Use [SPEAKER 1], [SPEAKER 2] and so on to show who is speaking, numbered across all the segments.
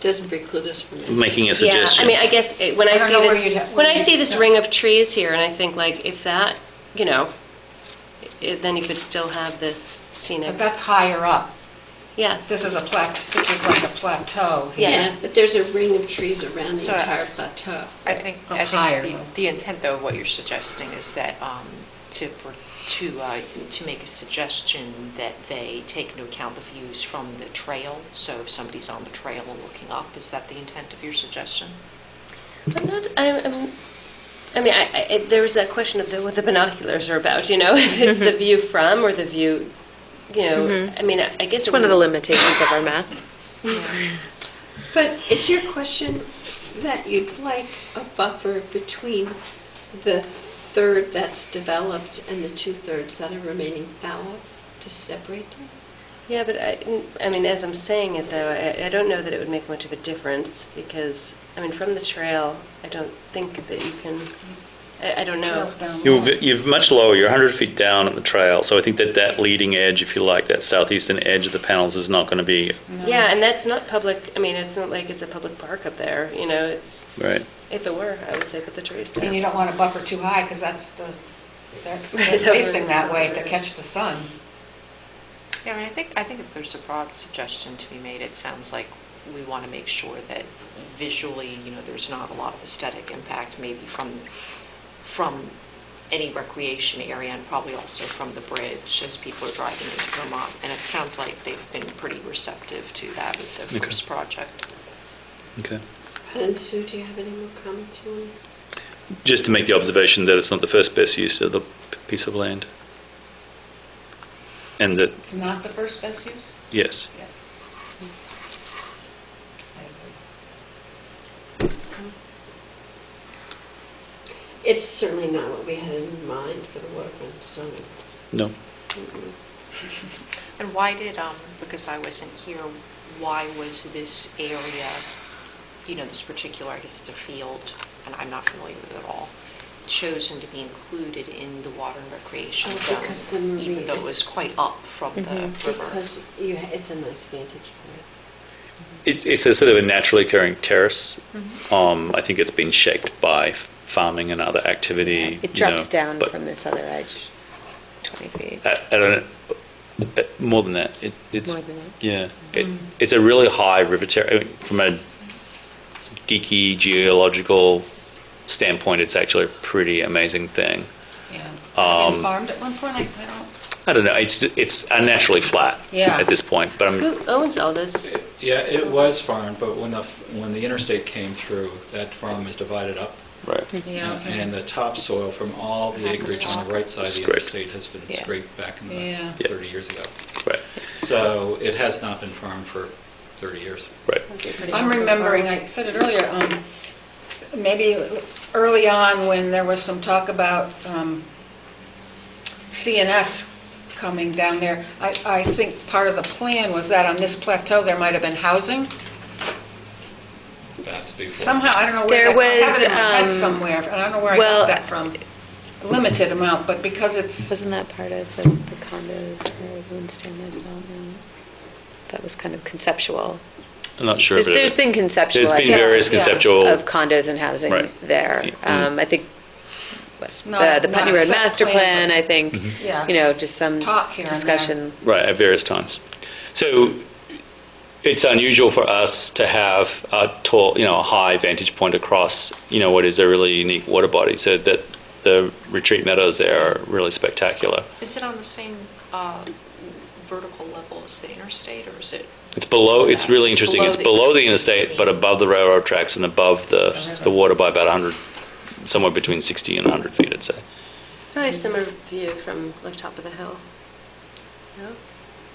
[SPEAKER 1] Doesn't preclude us from it.
[SPEAKER 2] making a suggestion.
[SPEAKER 3] Yeah, I mean, I guess it- when I
[SPEAKER 1] I don't
[SPEAKER 3] see
[SPEAKER 1] know where
[SPEAKER 3] this,
[SPEAKER 1] you'd ha-
[SPEAKER 3] when I
[SPEAKER 1] where
[SPEAKER 3] see
[SPEAKER 1] you'd-
[SPEAKER 3] this
[SPEAKER 1] no.
[SPEAKER 3] ring of trees here, and I think like, if that, you know, it- then you could still have this
[SPEAKER 4] But
[SPEAKER 3] scenic,
[SPEAKER 4] that's higher up.
[SPEAKER 3] yes.
[SPEAKER 4] This is a plat, this is like a plateau. here.
[SPEAKER 3] Yes.
[SPEAKER 1] Yeah, but there's a ring of trees around
[SPEAKER 5] So,
[SPEAKER 1] the
[SPEAKER 5] uh,
[SPEAKER 1] entire plateau.
[SPEAKER 5] I think,
[SPEAKER 4] Up
[SPEAKER 5] I
[SPEAKER 4] higher,
[SPEAKER 5] think
[SPEAKER 4] though.
[SPEAKER 5] the- the intent though, of what you're suggesting is that um, to, pr- to, uh, to make a suggestion that they take into account the views from the trail. So if somebody's on the trail and looking up, is that the intent of your suggestion?
[SPEAKER 3] I'm not, I'm, I'm- I mean, I, I, it- there was that question of the, what the binoculars are about, you know, if it's
[SPEAKER 6] Mm-hmm.
[SPEAKER 3] the view from or the view, you know, I mean, I I guess.
[SPEAKER 6] It's
[SPEAKER 3] it
[SPEAKER 6] one of the
[SPEAKER 3] wouldn't-
[SPEAKER 6] limitations of our map.
[SPEAKER 1] But is your question that you'd like a buffer between the third that's developed and the two-thirds that are remaining fallow to separate them?
[SPEAKER 3] Yeah, but I, I mean, as I'm saying it though, I, I don't know that it would make much of a difference because, I mean, from the trail, I don't think that you can, I, I don't know.
[SPEAKER 4] Trails down low.
[SPEAKER 2] You've, you've much lower, you're 100 feet down on the trail, so I think that that leading edge, if you like, that southeastern edge of the panels is not going to be,
[SPEAKER 3] Yeah, and that's not public, I mean, it's not like it's a public park up there, you know, it's,
[SPEAKER 2] right?
[SPEAKER 3] if it were, I would say put the trees
[SPEAKER 4] And you
[SPEAKER 3] there.
[SPEAKER 4] don't want to buffer too high because that's the, that's
[SPEAKER 3] Right,
[SPEAKER 4] they're
[SPEAKER 3] that
[SPEAKER 4] facing
[SPEAKER 3] works.
[SPEAKER 4] that way to catch the sun.
[SPEAKER 5] Yeah, I mean, I think, I think if there's a broad suggestion to be made, it sounds like we want to make sure that visually, you know, there's not a lot of aesthetic impact maybe from, from any recreation area and probably also from the bridge as people are driving into Vermont. And it sounds like they've been pretty receptive to that with the
[SPEAKER 2] Okay.
[SPEAKER 5] first project.
[SPEAKER 2] Okay.
[SPEAKER 1] And Sue, do you have any more comments you want?
[SPEAKER 2] Just to make the observation that it's not the first best use of the p- piece of land. And that,
[SPEAKER 4] It's not the first best use?
[SPEAKER 2] yes,
[SPEAKER 4] Yeah.
[SPEAKER 1] It's certainly not what we had in mind for the waterfront zone.
[SPEAKER 2] no.
[SPEAKER 5] And why did, um, because I wasn't here, why was this area, you know, this particular, I guess it's a field, and I'm not familiar with it at all, chosen to be included in the water and recreation
[SPEAKER 1] Oh,
[SPEAKER 5] zone?
[SPEAKER 1] because the marina-
[SPEAKER 5] Even though it was quite up from the
[SPEAKER 1] Mm-hmm.
[SPEAKER 5] river.
[SPEAKER 1] Because you, it's a nice vantage point.
[SPEAKER 2] It's, it's a sort of a naturally occurring terrace.
[SPEAKER 3] Mm-hmm.
[SPEAKER 2] Um, I think it's been shaped by f- farming and other activity.
[SPEAKER 6] It
[SPEAKER 2] you know,
[SPEAKER 6] drops down
[SPEAKER 2] but
[SPEAKER 6] from this other edge, 20 feet.
[SPEAKER 2] I, I don't know, more than that. It, it's
[SPEAKER 6] More than that?
[SPEAKER 2] yeah, it, it's a really high river terrace. I mean, from a geeky geological standpoint, it's actually a pretty amazing thing.
[SPEAKER 4] Yeah. Had it
[SPEAKER 2] Um,
[SPEAKER 4] been farmed at one point? I I don't.
[SPEAKER 2] I don't know. It's it's unnaturally flat
[SPEAKER 4] Yeah.
[SPEAKER 2] at this point, but I'm
[SPEAKER 3] Who owns all this?
[SPEAKER 7] Yeah, it was farmed, but when the, when the interstate came through, that farm was divided up.
[SPEAKER 2] right.
[SPEAKER 4] Yeah, okay.
[SPEAKER 7] And the topsoil from all the acreage on the right side of the
[SPEAKER 2] Scraped.
[SPEAKER 7] interstate has been
[SPEAKER 6] Yeah.
[SPEAKER 7] scraped back in
[SPEAKER 4] Yeah.
[SPEAKER 7] the 30 years ago.
[SPEAKER 2] Right,
[SPEAKER 7] So it has not been farmed for 30 years.
[SPEAKER 2] right.
[SPEAKER 4] I'm remembering, I said it earlier, um, maybe early on when there was some talk about um, CNS coming down there, I, I think part of the plan was that on this plateau, there might have been housing.
[SPEAKER 7] That's before.
[SPEAKER 4] Somehow, I don't know
[SPEAKER 6] There
[SPEAKER 4] where, that- I have
[SPEAKER 6] was,
[SPEAKER 4] it in my head
[SPEAKER 6] um,
[SPEAKER 4] somewhere, and I don't know where I
[SPEAKER 6] well,
[SPEAKER 4] got that from. Limited amount, but because it's,
[SPEAKER 6] Wasn't that part of the the condos for Winston, the development? That was kind of conceptual.
[SPEAKER 2] I'm not sure.
[SPEAKER 6] There's
[SPEAKER 2] if it-
[SPEAKER 6] there's been conceptual.
[SPEAKER 2] There's
[SPEAKER 6] I
[SPEAKER 2] been
[SPEAKER 6] guess,
[SPEAKER 2] various
[SPEAKER 4] yeah,
[SPEAKER 2] conceptual.
[SPEAKER 6] Of condos and housing
[SPEAKER 2] Right.
[SPEAKER 6] there.
[SPEAKER 2] Mm.
[SPEAKER 6] Um, I think was the
[SPEAKER 4] Not-
[SPEAKER 6] the
[SPEAKER 4] Uh, not
[SPEAKER 6] Putney
[SPEAKER 4] a
[SPEAKER 6] Road
[SPEAKER 4] set
[SPEAKER 6] master
[SPEAKER 4] plan,
[SPEAKER 6] plan, I think,
[SPEAKER 2] Mm-hmm.
[SPEAKER 4] Yeah.
[SPEAKER 6] you know, just some
[SPEAKER 4] Talk here and there.
[SPEAKER 6] discussion.
[SPEAKER 2] Right, at various times. So it's unusual for us to have a tall, you know, a high vantage point across, you know, what is a really unique water body. So that the retreat meadows there are really spectacular.
[SPEAKER 5] Is it on the same uh, vertical level as the interstate, or is it?
[SPEAKER 2] It's below, it's really
[SPEAKER 5] It's
[SPEAKER 2] interesting.
[SPEAKER 5] below
[SPEAKER 2] It's
[SPEAKER 5] the
[SPEAKER 2] below the
[SPEAKER 5] interstate.
[SPEAKER 2] interstate, but above the railroad tracks and above the, the water by about 100, somewhere between 60 and 100 feet, I'd say.
[SPEAKER 3] Probably a similar view from the top of the hill. No?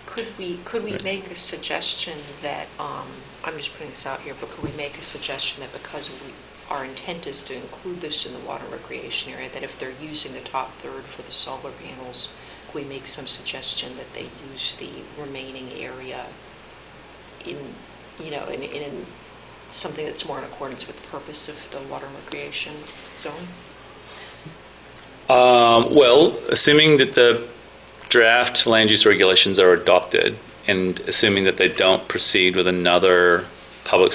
[SPEAKER 5] Could we, could we
[SPEAKER 2] Right.
[SPEAKER 5] make a suggestion that, um, I'm just putting this out here, but could we make a suggestion that because we, our intent is to include this in the water recreation area, that if they're using the top third for the solar panels, could we make some suggestion that they use the remaining area in, you know, in, in something that's more in accordance with the purpose of the water recreation zone?
[SPEAKER 2] Um, well, assuming that the draft land use regulations are adopted and assuming that they don't proceed with another public